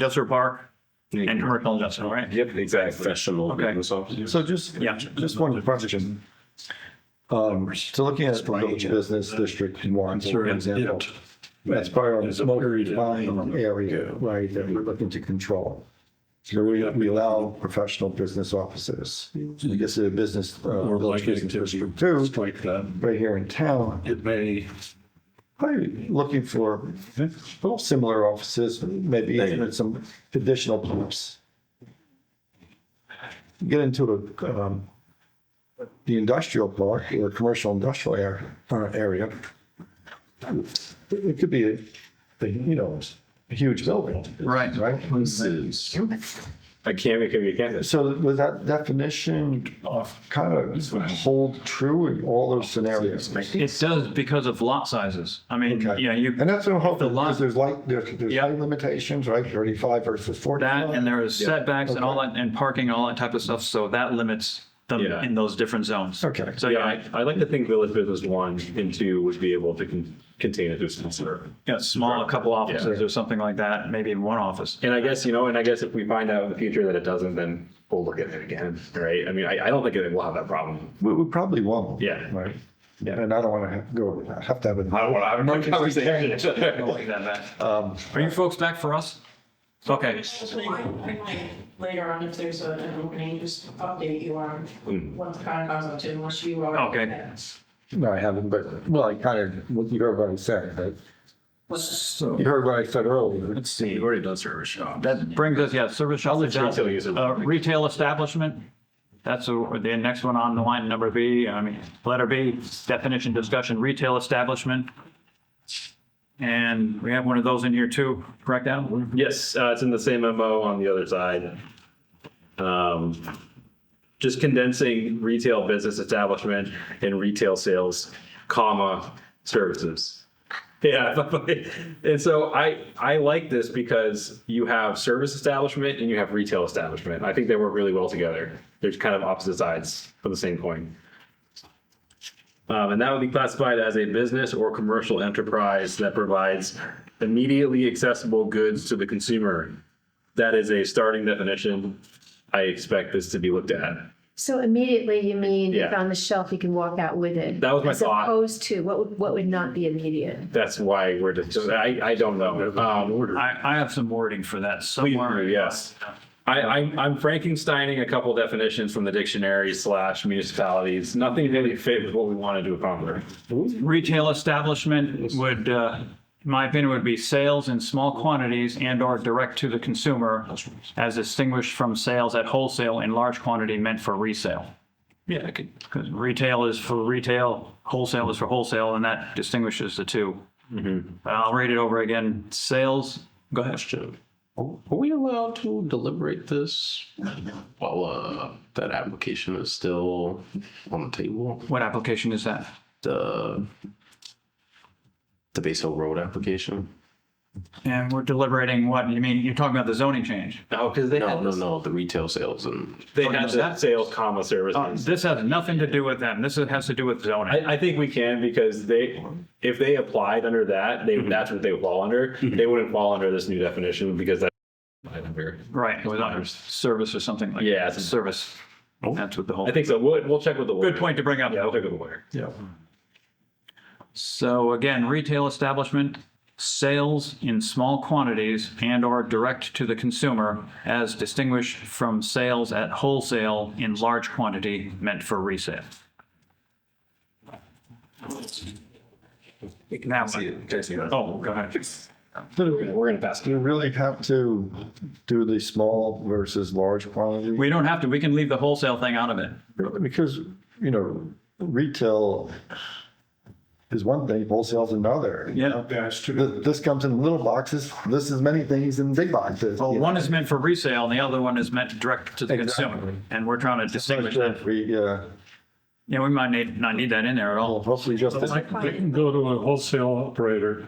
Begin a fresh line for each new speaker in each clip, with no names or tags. industrial park and commercial industrial, right?
Yep, exactly.
professional
Okay.
business officers.
So just,
Yeah.
just one question. Um, so looking at the business district one, for example, that's part of the motor defined area, right, that we're looking to control. So we, we allow professional business offices. So you get to the business, uh,
Or
village
like
business
activity,
district two,
strike that.
right here in town,
It may,
probably looking for little similar offices, maybe even some additional groups. Get into a, um, the industrial park or commercial industrial area, uh, area. It could be, a- a, you know, a huge building.
Right.
Right?
This is, I can't make it again.
So was that definition of kind of hold true in all those scenarios?
It does because of lot sizes. I mean,
Okay.
yeah, you,
And that's what I'm hoping,
The lot-
because there's like, there's, there's
Yeah.
height limitations, right, thirty-five versus forty-five.
that and there is setbacks and all that and parking, and all that type of stuff. So that limits them
Yeah.
in those different zones.
Okay.
So
Yeah,
yeah,
I, I like to think village business one and two would be able to con- contain a distance served.
yeah, small, a couple offices or something like that, maybe one office.
And I guess, you know, and I guess if we find out in the future that it doesn't, then we'll look at it again, right? I mean, I, I don't think it will have that problem.
We, we probably won't.
Yeah.
Right. And I don't want to have, go, have to have
I
a,
don't want to have another conversation.
Like that, Matt. Are you folks back for us? Okay.
Later on, if there's a- an opening, just update you on what the kind of goes up to, unless you are.
Hmm. Okay.
no, I haven't, but, well, I kind of, you heard what I said, right?
So
You heard what I said earlier.
let's see, you've already done service shop.
that brings us, yeah, service shop.
retail user.
Uh, Retail establishment. That's the the next one on the line, number B, I mean, letter B, definition discussion, retail establishment. And we have one of those in here too, correct, Adam?
Yes, uh, it's in the same MO on the other side. Um, just condensing retail business establishment and retail sales, comma, services. Yeah, and so I I like this because you have service establishment and you have retail establishment. I think they work really well together. They're kind of opposite sides of the same coin. Um, and that would be classified as a business or commercial enterprise that provides immediately accessible goods to the consumer. That is a starting definition. I expect this to be looked at.
So immediately, you mean if
Yeah.
on the shelf, you can walk out with it?
That was my
as
thought.
opposed to, what would, what would not be immediate?
That's why we're just, I, I don't know. Um,
I, I have some wording for that
please
somewhere.
do, yes. I, I'm, I'm Frankensteining a couple definitions from the dictionary slash municipalities. Nothing really fit with what we wanted to accomplish.
Retail establishment would, uh, in my opinion, would be sales in small quantities and/or direct to the consumer as distinguished from sales at wholesale in large quantity meant for resale. Yeah, because retail is for retail, wholesale is for wholesale, and that distinguishes the two. But I'll read it over again. Sales, go ahead.
Question. Are are we allowed to deliberate this while uh, that application is still on the table?
What application is that?
The, the Base Hill Road application?
And we're deliberating what, you mean, you're talking about the zoning change?
No, because they
No,
had,
no, no, the retail sales and
they had that sales comma
Uh,
services.
This has nothing to do with them. This has to do with zoning.
I, I think we can because they, if they applied under that, they,
Mm-hmm.
that's what they would fall under. They wouldn't fall under this new definition because that's under.
Right, it was on service or something like. Oh.
Yeah,
It's a
it's-
service. That's what the whole.
I think so. We'll, we'll check with the lawyer.
Good point to bring up.
Yeah, we'll check with the lawyer.
So again, retail establishment, sales in small quantities and or direct to the consumer as distinguished from sales at wholesale in large quantity meant for resale. Now, oh, go ahead.
We're gonna pass. You really have to do the small versus large quantity.
We don't have to, we can leave the wholesale thing out of it.
Because, you know, retail is one thing, wholesale's another. you
Yeah.
know? Th- This comes in little boxes, this is many things in big boxes.
Well,
you
one
know?
is meant for resale and the other one is meant direct to the consumer.
Exactly.
And we're trying to distinguish that.
We, uh,
Yeah, we might need, not need that in there at all.
hopefully just. this-
I
Fine.
can go to a wholesale operator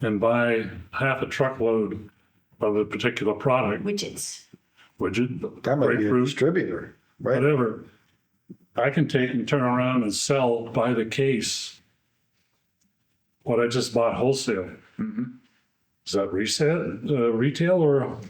and buy half a truckload of a particular product,
Widgets.
widget,
That might be a
grapefruit,
distributor, right?
whatever. I can take and turn around and sell by the case
Mm-hmm.
what I just bought wholesale. Is that reset, uh, retail or